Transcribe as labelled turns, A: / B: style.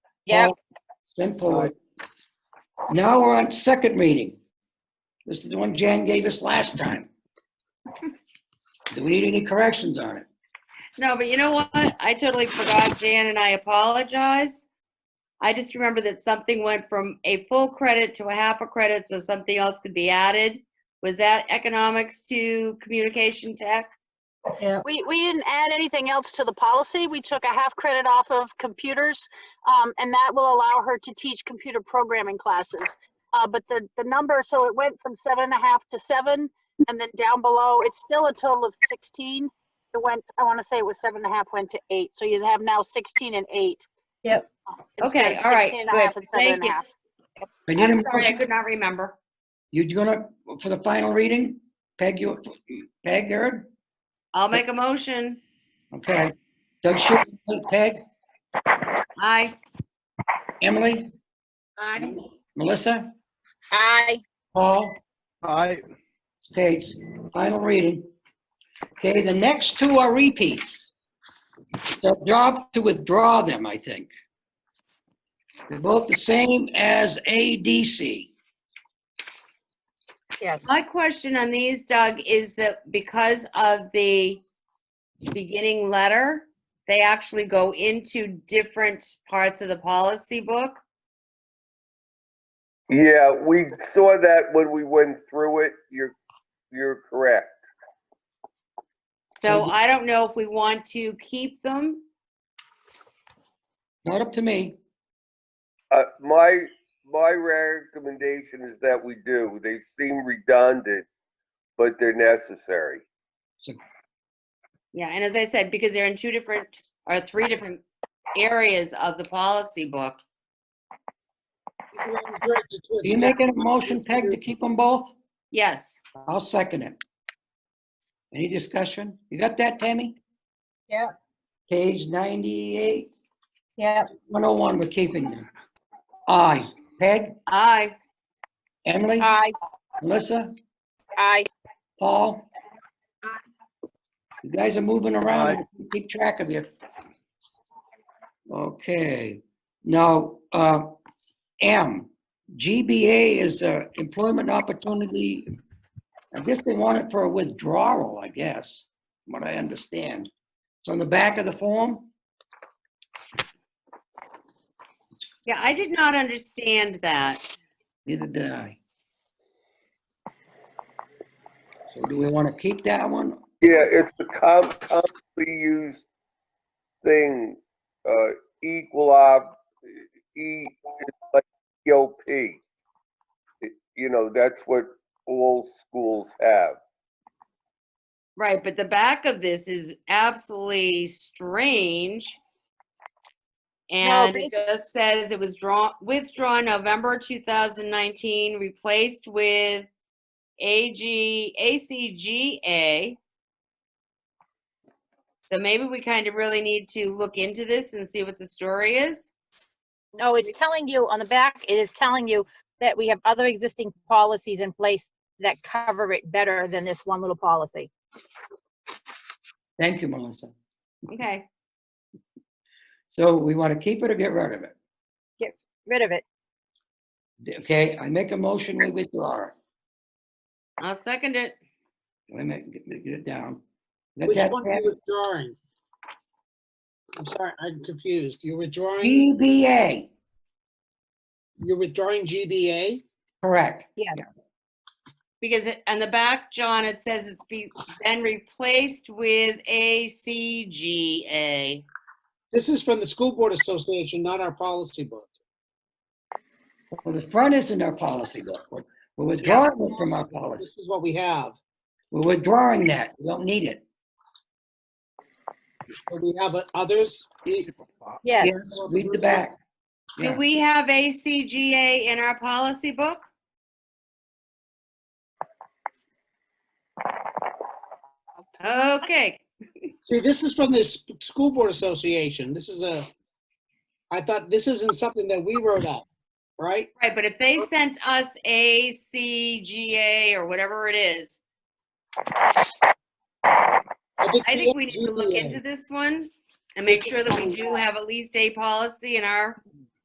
A: Yep.
B: Simple. Now we're on second reading. This is the one Jan gave us last time. Do we need any corrections on it?
A: No, but you know what? I totally forgot, Jan, and I apologize. I just remember that something went from a full credit to a half a credit, so something else could be added. Was that economics to communication tech?
C: We, we didn't add anything else to the policy. We took a half credit off of computers, um, and that will allow her to teach computer programming classes. Uh, but the, the number, so it went from seven and a half to seven, and then down below, it's still a total of sixteen. It went, I want to say it was seven and a half, went to eight, so you have now sixteen and eight.
D: Yep.
C: uh, instead
A: Okay,
C: of
A: all right,
C: 16 and a half
A: good.
C: and seven
A: Thank
C: and a
A: you.
C: half.
B: I need a
A: I'm sorry, I
B: motion.
A: could not remember.
B: You gonna, for the final reading? Peg, you, Peg, Eric?
A: I'll make a motion.
B: Okay. Doug Schiff, Peg,
A: Aye.
B: Emily,
A: Aye.
B: Melissa,
A: Aye.
B: Paul?
E: Aye.
B: Okay, it's final reading. Okay, the next two are repeats. The job to withdraw them, I think. They're both the same as ADC.
C: Yes.
A: My question on these, Doug, is that because of the beginning letter, they actually go into different parts of the policy book.
F: Yeah, we saw that when we went through it. You're, you're correct.
A: So
B: Mhm.
A: I don't know if we want to keep them.
B: Not up to me.
F: Uh, my, my recommendation is that we do. They seem redundant, but they're necessary.
A: Yeah, and as I said, because they're in two different or three different areas of the policy book.
B: Are you making a motion, Peg, to keep them both?
A: Yes,
B: I'll second it. Any discussion? You got that, Tammy?
D: Yeah.
B: Page 98,
D: Yep.
B: 101, we're keeping them. Aye. Peg?
A: aye.
B: Emily?
A: Aye.
B: Melissa?
A: Aye.
B: Paul? You guys are moving around. Keep track of you. Okay. Now, uh, M, GBA is uh, employment opportunity. I guess they want it for a withdrawal, I guess, from what I understand. It's on the back of the form.
A: Yeah, I did not understand that.
B: Neither did I. So do we want to keep that one?
F: Yeah, it's a com- commonly used thing, uh, equal op, E, it's like EOP. It- You know, that's what all schools have.
A: Right, but the back of this is absolutely strange. And it just says it was drawn, withdrawn November 2019, replaced with AG, ACGA. So maybe we kind of really need to look into this and see what the story is.
G: No, it's telling you on the back, it is telling you that we have other existing policies in place that cover it better than this one little policy.
B: Thank you, Melissa.
A: Okay,
B: So we want to keep it or get rid of it?
G: Rid of it.
B: Okay, I make a motion, we withdraw it.
A: I'll second it.
B: Wait a minute, get get it down. Got
H: Which
B: that,
H: one are
B: Pat?
H: you withdrawing? I'm sorry, I'm confused. You're withdrawing,
B: GBA,
H: you're withdrawing GBA?
B: correct.
A: Because it- on the back, John, it says it's be, then replaced with ACGA.
H: This is from the School Board Association, not our policy book.
B: Well, the front is in our policy book. We're we're withdrawing it from our policy.
H: This is what we have.
B: We're withdrawing that. We don't need it.
H: But We have uh, others. We-
G: Yes.
B: Yes, read the back.
A: Do
B: Yeah.
A: we have ACGA in our policy book? Okay,
H: See, this is from the S- School Board Association. This is a, I thought this isn't something that we wrote up, right?
A: right, but if they sent us ACGA or whatever it is, I think we need to look
H: GBA.
A: into this one and make sure that we do have at least a policy in our